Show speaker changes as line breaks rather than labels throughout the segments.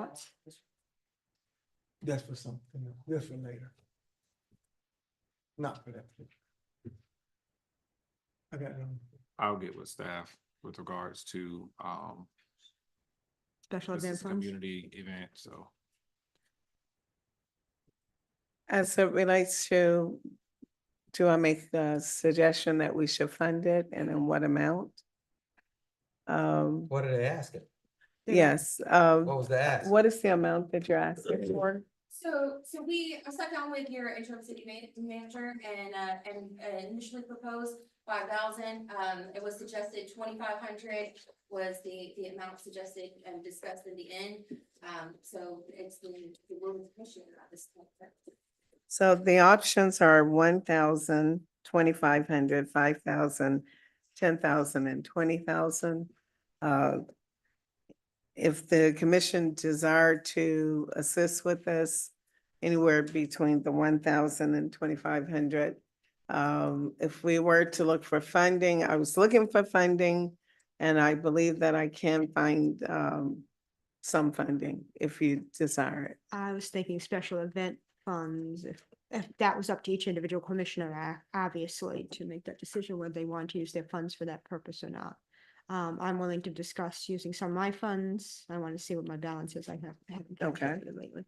out.
That's for something, else. that's for later. Not for that. particular. I got, um,
I'll get with staff with regards to, um,
Special
this
event
is a
funds.
community event, so.
As it relates to, do I make the suggestion that we should fund it and in what amount? Um,
What did they ask it?
Yeah.
yes, uh,
What was the ask?
what is the amount that you're asking for?
So, so we I sat down with your interim city ma- manager and, uh, and uh, initially proposed five thousand. Um, it was suggested twenty-five hundred was the, the amount suggested and discussed in the end. Um, so it's the, the will of the commission at this point.
So the options are one thousand, twenty-five hundred, five thousand, ten thousand, and twenty thousand. Uh, If the commission desire to assist with this, anywhere between the one thousand and twenty-five hundred. Um, if we were to look for funding, I was looking for funding, and I believe that I can find, um, some funding if you desire it.
I was thinking special event funds, if, if that was up to each individual commissioner, a- obviously, to make that decision whether they want to use their funds for that purpose or not. Um, I'm willing to discuss using some of my funds. I want to see what my balance is. I have. I haven't
Okay.
calculated Lately.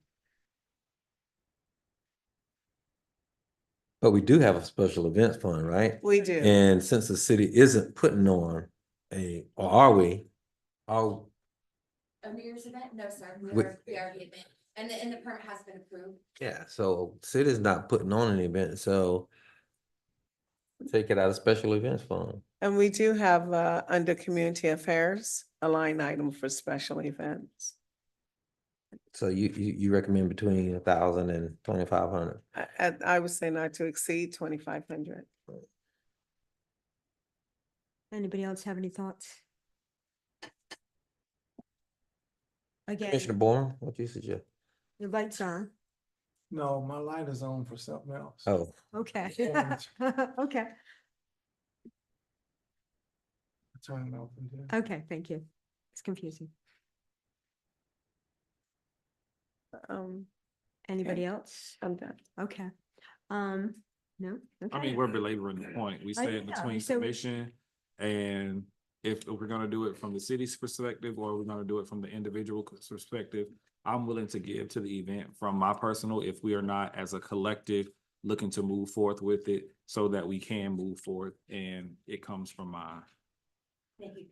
But we do have a special events fund, right?
We do.
And since the city isn't putting on a, or are we? Are,
A New Year's event? No, sir, we
With-
are, we are the event. And the, and the permit has been approved.
yeah, so city's not putting on an event, so take it out of special events fund.
And we do have, uh, under community affairs, a line item for special events.
So you, you, you recommend between a thousand and twenty-five hundred?
I, I, I would say not to exceed twenty-five hundred.
Anybody else have any thoughts? Again,
Commissioner Born, what do you suggest?
your lights on.
no, my light is on for something else.
Oh,
Okay.
Orange.
Okay,
Turn it off and do it.
okay, thank you. It's confusing.
Um,
Anybody else?
I'm done.
Okay. Um, no?
I mean,
Okay.
we're belaboring the point. We
I
said
know,
between
so-
commission and if we're gonna do it from the city's perspective or we're gonna do it from the individual c- perspective, I'm willing to give to the event from my personal, if we are not as a collective looking to move forth with it so that we can move forth and it comes from my,
Thank you.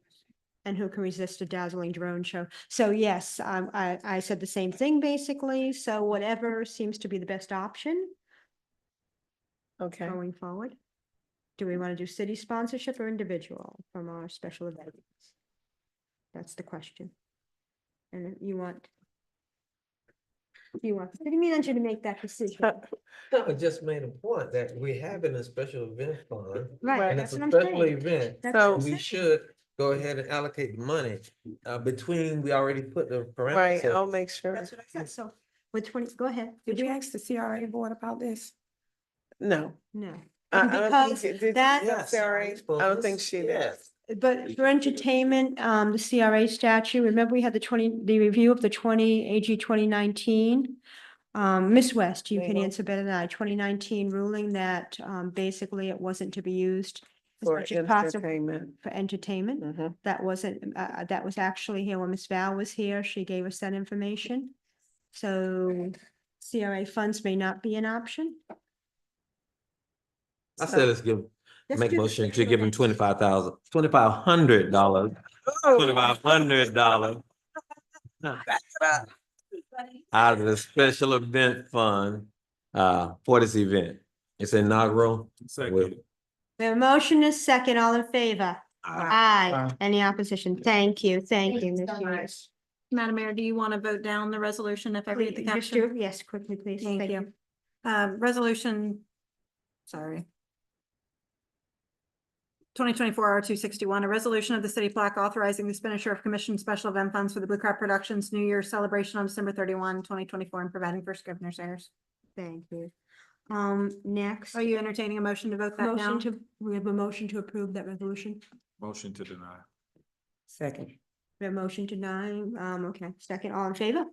And who can resist a dazzling drone show? So yes, um, I, I said the same thing basically. So whatever seems to be the best option
Okay,
going forward. Do we want to do city sponsorship or individual from our special events? That's the question. And you want you want the city manager to make that decision,
I just made a point that we have it in a special event fund.
right?
And
That's
it's
what
a
I'm
special
saying.
event.
That's what I'm
We
saying.
should go ahead and allocate the money, uh, between, we already put the
right, I'll
oh,
parameters.
make sure.
That's what I said. So with twenty, go ahead.
Did you ask the CRA board about this?
No.
No.
I- I don't think
Because
it- did-
that-
I'm
Yes,
Sorry, I don't think she did.
yes.
But for entertainment, um, the CRA statute, remember we had the twenty, the review of the twenty, AG twenty nineteen? Um, Ms. West, you can
Mhm.
answer better than I, twenty nineteen ruling that, um, basically it wasn't to be used as
For
much as possible
entertainment.
For entertainment,
Mhm.
that wasn't, uh, uh, that was actually here when Ms. Val was here, she gave us that information. So CRA funds may not be an option.
I said let's give,
Let's
make
do the
motion to
special
give him
event.
twenty-five thousand, twenty-five hundred dollars,
Oh.
twenty-five hundred dollars
Buddy?
out of the special event fund, uh, for this event. It's inaugural.
second,
The motion is second, all in favor? Aye.
Aye.
Any opposition? Thank you, thank
Thank
you.
you
Ms.
so
Lewis.
Madam Mayor, do you want to vote down the resolution if I read the
Please, just
caption?
do- Yes, quickly, please.
Thank
Thank
you.
you.
Um, resolution, sorry. Twenty twenty-four R two sixty-one, a resolution of the city of Black authorizing the expenditure of commission special event funds for the Blue Crab Productions New Year celebration on December 31, 2024, and providing for scrivener's errors.
Thank you. Um, next.
Are you entertaining a motion to vote that
Motion
down?
to, we have a motion to approve that resolution.
motion to deny.
We have motion to nine, um, okay, second, all in favor?